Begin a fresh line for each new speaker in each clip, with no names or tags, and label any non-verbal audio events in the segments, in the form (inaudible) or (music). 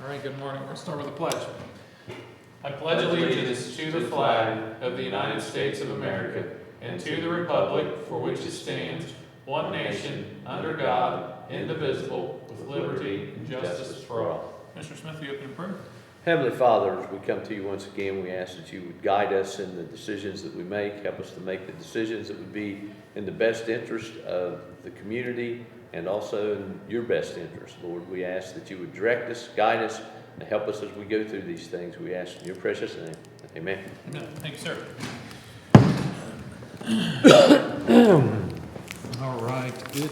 All right, good morning. We're gonna start with a pledge. I pledge allegiance to the flag of the United States of America and to the republic for which it stands, one nation, under God, indivisible, with liberty and justice for all. Mr. Smith, the opening prayer.
Heavenly Father, as we come to you once again, we ask that you would guide us in the decisions that we make. Help us to make the decisions that would be in the best interest of the community and also in your best interest. Lord, we ask that you would direct us, guide us, and help us as we go through these things. We ask in your precious name. Amen.
No, thank you, sir. (coughs) All right, good.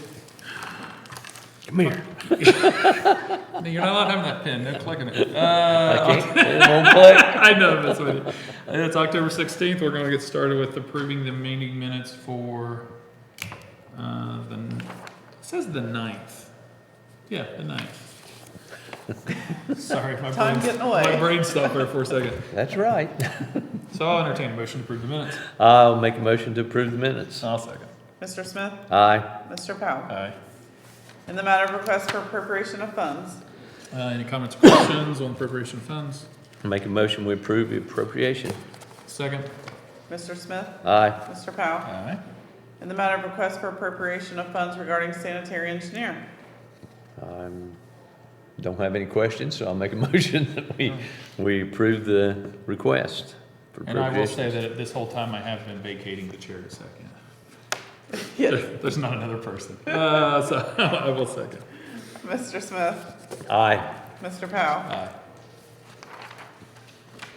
Come here.
(laughs) No, You're not allowed having that pen, no clicking it. Uh,
I can't. It won't play.
I know that's what it- It's October 16th. We're going to get started with approving the meeting minutes for uh, the, it says the 9th. Yeah, the 9th. (laughs) Sorry, my
Time
brain's,
getting away.
my brain stopped there for a second.
That's right.
So I'll entertain a motion to approve the minutes.
I'll make a motion to approve the minutes.
I'll second.
Mr. Smith?
Aye.
Mr. Powell?
Aye.
In the matter of request for appropriation of funds,
Uh, Any comments, or questions on appropriation of funds?
Make a motion we approve the appropriation.
Second.
Mr. Smith?
Aye.
Mr. Powell?
Aye.
In the matter of request for appropriation of funds regarding sanitary engineer,
I don't have any questions, so I'll make a (laughs) motion that we, we approve the request. for
And I will say
appropriation.
that this whole time I have been vacating the chair a second.
Yes.
There- (laughs) There's not another person. (laughs) Uh, So I will second.
Mr. Smith?
Aye.
Mr. Powell?
Aye.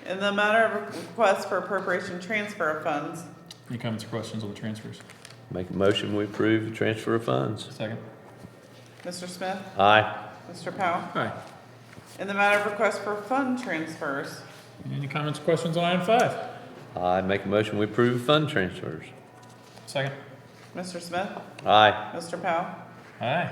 In the matter of request for appropriation transfer of funds,
Any comments or questions on the transfers?
Make a motion, we approve the transfer of funds.
Second.
Mr. Smith?
Aye.
Mr. Powell?
Aye.
In the matter of request for fund transfers,
Any comments or questions on item five?
I make a motion, we approve fund transfers.
Second.
Mr. Smith?
Aye.
Mr. Powell?
Aye.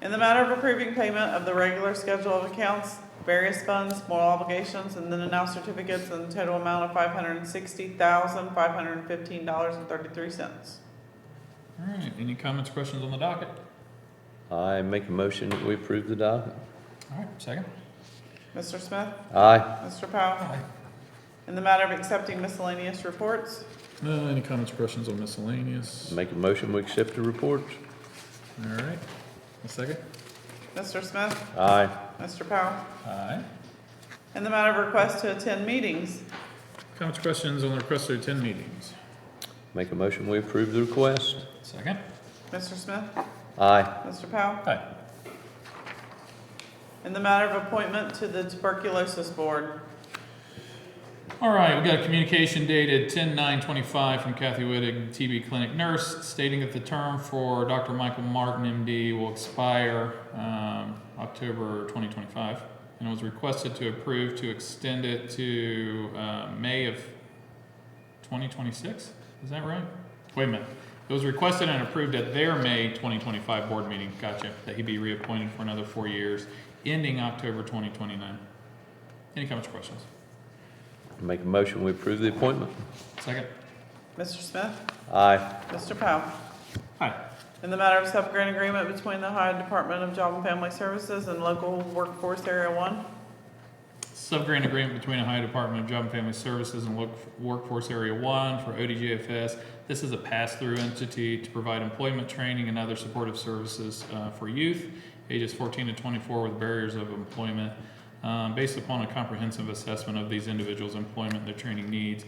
In the matter of approving payment of the regular schedule of accounts, various funds, moral obligations, and then announced certificates in the total amount of five hundred and sixty thousand, five hundred and fifteen dollars and thirty-three cents.
All right, any comments or questions on the docket?
I make a motion that we approve the docket.
All right, second.
Mr. Smith?
Aye.
Mr. Powell?
Aye.
In the matter of accepting miscellaneous reports,
Uh, any comments or questions on miscellaneous?
Make a motion, we accept the report.
All right, a second.
Mr. Smith?
Aye.
Mr. Powell?
Aye.
In the matter of request to attend meetings,
Comments or questions on the request to attend meetings?
Make a motion, we approve the request.
Second.
Mr. Smith?
Aye.
Mr. Powell?
Aye.
In the matter of appointment to the tuberculosis board,
All right, we got a communication dated 10 9 25 from Kathy Whittig, TB clinic nurse, stating that the term for Dr. Michael Martin, MD, will expire um, October 2025, and it was requested to approve to extend it to uh, May of 2026. Is that right? Wait a minute. It was requested and approved at their May 2025 board meeting. Gotcha. That he be reappointed for another four years, ending October 2029. Any comments or questions?
Make a motion, we approve the appointment.
Second.
Mr. Smith?
Aye.
Mr. Powell?
Hi.
In the matter of subgrant agreement between the Ohio Department of Job and Family Services and Local Workforce Area One.
Subgrant agreement between Ohio Department of Job and Family Services and Work- Workforce Area One for ODGFS. This is a pass-through entity to provide employment training and other supportive services uh, for youth ages 14 to 24 with barriers of employment. Um, Based upon a comprehensive assessment of these individuals' employment, their training needs,